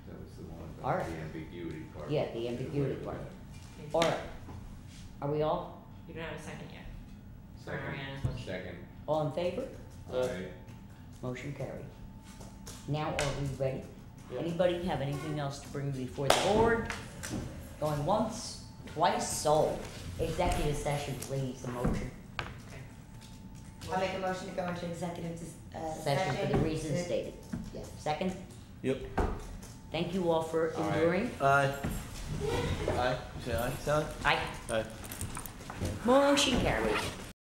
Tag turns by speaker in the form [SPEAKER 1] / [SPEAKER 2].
[SPEAKER 1] All right.
[SPEAKER 2] The ambiguity part.
[SPEAKER 1] Yeah, the ambiguity
[SPEAKER 2] Get away
[SPEAKER 1] part.
[SPEAKER 2] with
[SPEAKER 1] All right. Are we all,
[SPEAKER 3] You don't have a second yet.
[SPEAKER 2] that.
[SPEAKER 3] for Mariana's
[SPEAKER 2] Second,
[SPEAKER 3] motion.
[SPEAKER 2] second,
[SPEAKER 1] all in favor?
[SPEAKER 2] aye,
[SPEAKER 1] Motion carried. Now are we ready?
[SPEAKER 4] Yeah.
[SPEAKER 1] Anybody have anything else to bring before the board? Going once, twice, sold. Executive session, please, a motion.
[SPEAKER 5] I'll make a motion to go into executive dis- uh,
[SPEAKER 1] Session
[SPEAKER 5] session.
[SPEAKER 1] for the reasons
[SPEAKER 5] to-
[SPEAKER 1] stated.
[SPEAKER 5] Yeah.
[SPEAKER 1] Second,
[SPEAKER 4] Yep.
[SPEAKER 1] thank you all for
[SPEAKER 2] All right.
[SPEAKER 1] enduring.
[SPEAKER 4] Aye. Aye. You say aye, Sally?
[SPEAKER 1] Aye.
[SPEAKER 4] Aye.
[SPEAKER 1] Motion carried.